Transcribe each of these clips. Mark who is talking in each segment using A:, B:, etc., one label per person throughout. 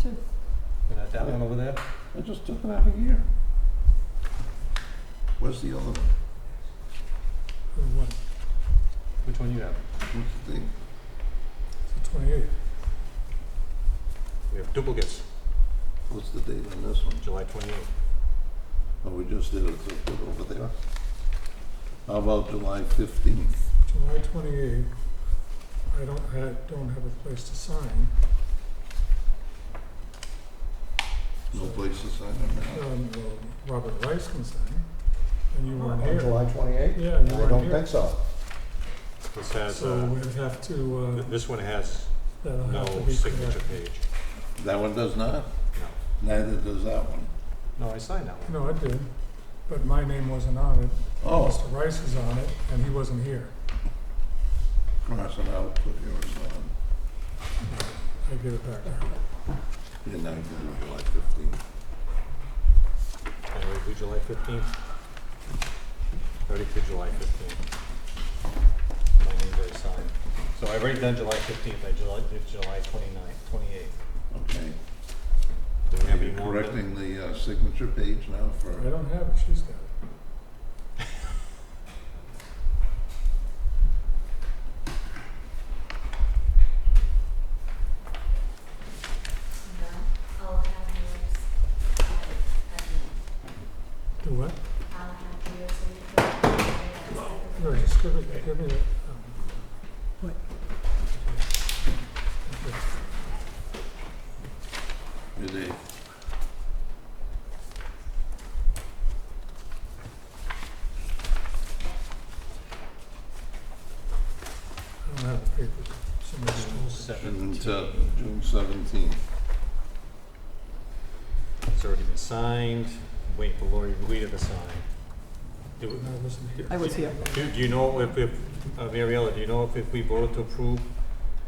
A: too.
B: And that, that one over there?
C: I just took it out of here. Where's the other one?
D: Or what,
B: Which one you have?
C: What's the thing?
D: it's the twenty-eighth?
B: We have duplicates,
C: What's the date on this one?
B: July twenty-eighth.
C: Oh, we just did it, so put it over there. How about July fifteenth?
D: July twenty-eighth, I don't, I don't have a place to sign.
C: No place to sign it now.
D: Um, well, Robert Rice can sign, and you
B: Oh,
D: weren't
E: On
D: here.
E: July twenty-eighth?
D: Yeah, you
E: I don't
D: weren't here.
E: think so.
B: This has,
D: So Uh,
B: uh,
D: we'd have to, uh,
B: th- this one has
D: that'll
B: no
D: have to be
B: signature
D: corrected.
B: page.
C: That one does not?
B: No.
C: Neither does that one.
B: No, I signed that one.
D: No, it did, but my name wasn't on it.
C: Oh,
D: Mr. Rice is on it, and he wasn't here.
C: cross it out, put yours on.
D: I give it back to her.
C: And I did it July fifteenth.
B: And we do July fifteenth. Thirty to July fifteenth. My name is signed. So I've already done July fifteenth, I July, did July twenty-ninth, twenty-eighth.
C: Okay.
B: Do we have
C: Are
B: any
C: you
B: more?
C: correcting the uh, signature page now
D: I
C: for,
D: don't have it, she's got it.
F: No, I'll have yours.
D: Do what?
F: I'll have yours in the.
D: No, just give it, give it, um.
A: What?
D: Okay.
C: your date?
D: I don't have the papers, somebody stole it.
C: June
B: Seventeenth.
C: te- June seventeenth.
B: It's already been signed. Wait for Lori Rueda to sign. Do we-
D: And I wasn't here.
A: I was here.
B: Do, do you know if, if, uh, Mariella, do you know if, if we voted to approve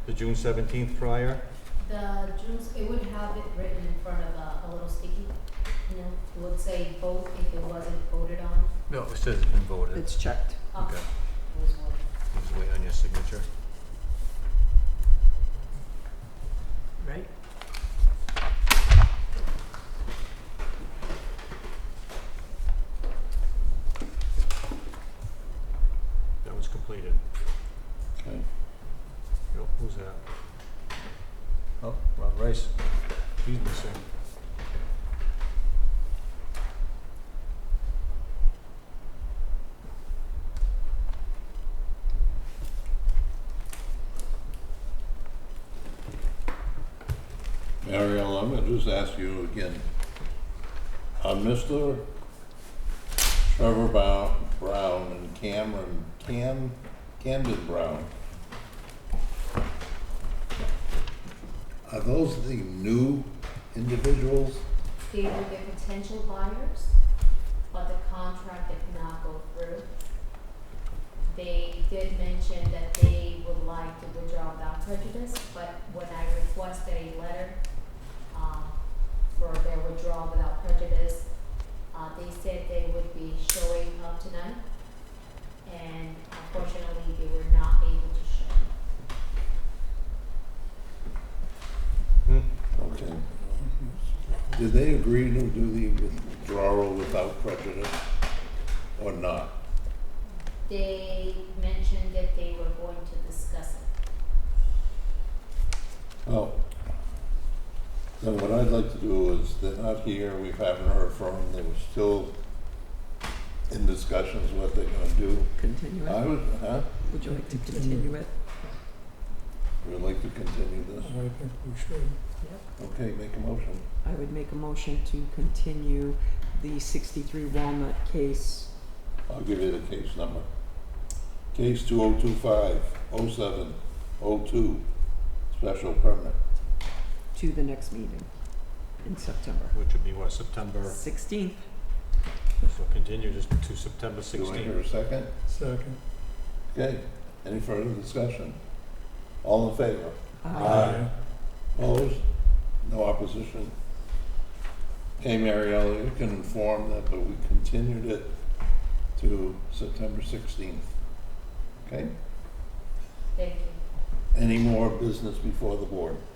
B: the June seventeenth prior?
F: The June's, it would have it written in front of a, a little sticky, you know, it would say vote if it wasn't voted on.
B: No, it says it's been voted.
A: It's checked.
F: Oh,
B: Okay.
F: It was voted.
B: Just wait on your signature.
A: Right.
B: That was completed.
C: Okay.
B: Yo, Who's that? Oh, Rob Rice. He's missing.
C: Ariel, I'm gonna just ask you again. Uh, Mr. Trevor Bow- Brown and Cameron, Cam, Camden Brown. Are those the new individuals?
F: They were the potential buyers, but the contract did not go through. They did mention that they would like to withdraw without prejudice, but when I requested a letter, um, for their withdrawal without prejudice, uh, they said they would be showing up tonight, and unfortunately, they were not able to show.
C: Okay. Did they agree to do the withdrawal without prejudice or not?
F: They mentioned that they were going to discuss it.
C: Oh. Then what I'd like to do is, they're not here, we haven't heard from them, they were still in discussions what they're gonna do.
A: Continue
C: I
A: it.
C: would, huh,
A: Would you like to continue it?
C: we'd like to continue this.
D: I think we should.
C: Okay, make a motion.
A: I would make a motion to continue the 63 Walnut case.
C: I'll give you the case number. Case two oh two five oh seven oh two, special permit.
A: to the next meeting in September.
B: Which would be what, September,
A: 16th.
B: so continue just to September
C: Do I hear
B: sixteenth.
C: a second?
D: Second.
C: Okay, any further discussion? All in favor?
A: Uh,
C: Aye. Opposed? No opposition? Okay, Mariella, you can inform that, but we continued it to September 16th. Okay?
F: Thank you.
C: Any more business before the board?